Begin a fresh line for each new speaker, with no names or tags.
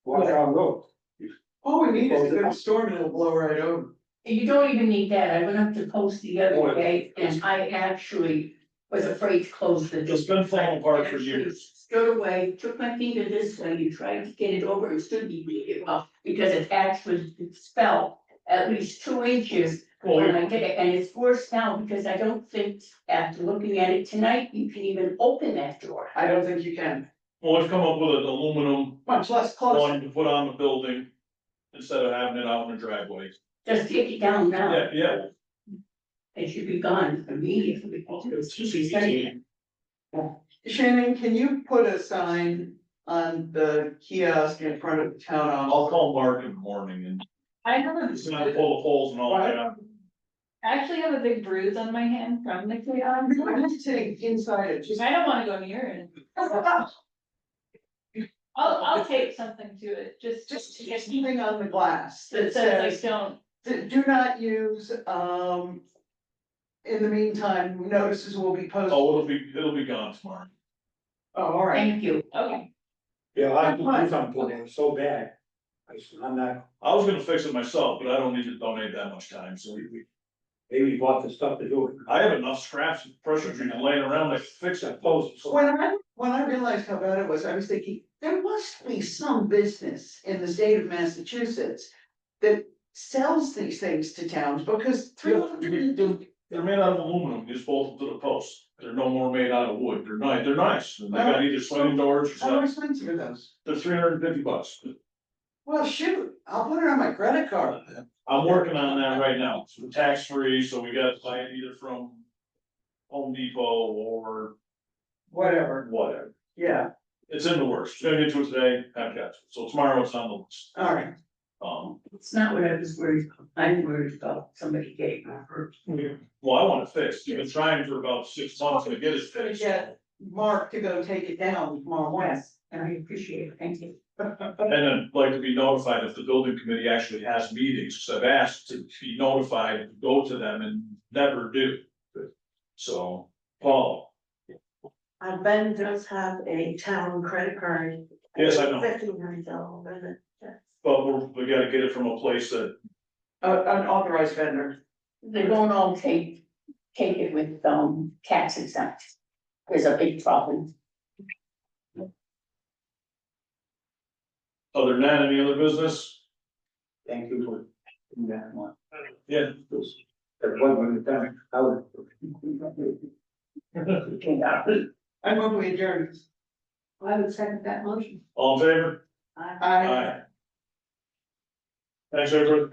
was our road.
All we need is a
Close it
good
up.
storm and it'll blow right over.
You don't even need that, I went up to post the
Oh,
other
yeah.
day, and I actually was afraid to close the.
It's been falling apart for years.
Stood away, took my finger this way, and tried to get it over, it stood me really well, because it actually fell at least two inches when
Well,
I did it, and it's worse now, because I don't think, after looking at it tonight, you can even open that door.
I don't think you can,
well, we've come up with an aluminum
much less close.
line to put on the building instead of having it out in the driveway.
Just take it down now,
Yeah, yeah,
it should be gone immediately.
It's just easy.
Shannon, can you put a sign on the kiosk in front of the town
I'll
hall?
call Mark in the morning and
I have a,
he's gonna pull the poles and all that.
I actually have a big bruise on my hand from the chaos.
I'm sitting inside it, just.
I don't wanna go near it. I'll, I'll tape something to it,
Just
just, just to get,
something on the glass
that says I don't,
D- Do not use, um. In the meantime, notices will be posted.
Oh, it'll be, it'll be gone tomorrow.
Oh, all right.
Thank you.
okay,
Yeah, I had to do something, it was so bad. I said, I'm not,
I was gonna fix it myself, but I don't need to donate that much time, so we, we,
maybe bought the stuff to do it.
I have enough scraps and pressure treated laying around to fix that post. so-
When I, when I realized how bad it was, I was thinking, there must be some business in the state of Massachusetts. That sells these things to towns because three
Yeah,
hundred
they're- They're made out of aluminum, you just bolt them to the post. They're no more made out of wood. They're nice, they're nice. They got either swing doors or
how
something.
expensive are those?
They're three hundred and fifty bucks.
Well, shoot, I'll put it on my credit card.
I'm working on that right now, so tax free, so we got to buy it either from Home Depot or
Whatever,
whatever.
yeah,
It's in the works, It's gonna get to it today, have got to, so tomorrow it's on the list.
all right.
Um,
It's not what I was worried about, I'm worried about somebody getting hurt.
well, I want it fixed, you've been trying for about six months to get it
Just gonna
fixed.
get Mark to go take it down tomorrow morning.
And I appreciate it, thank you.
And then I'd like to be notified if the building committee actually has meetings, 'cause I've asked to be notified, go to them and never do. So, Paul,
Uh, Ben does have a town credit card.
Yes, I know.
Fifty-nine dollars.
but we're, we gotta get it from a place that,
Uh, an authorized vendor.
They won't all take, take it with, um, tax exempt. There's a big problem.
other than that, any other business?
Thank you for doing that one.
Yeah.
That one when it's done, I was.
I move we adjourn.
I would second that motion.
All in favor?
I.
I
Thanks, everyone.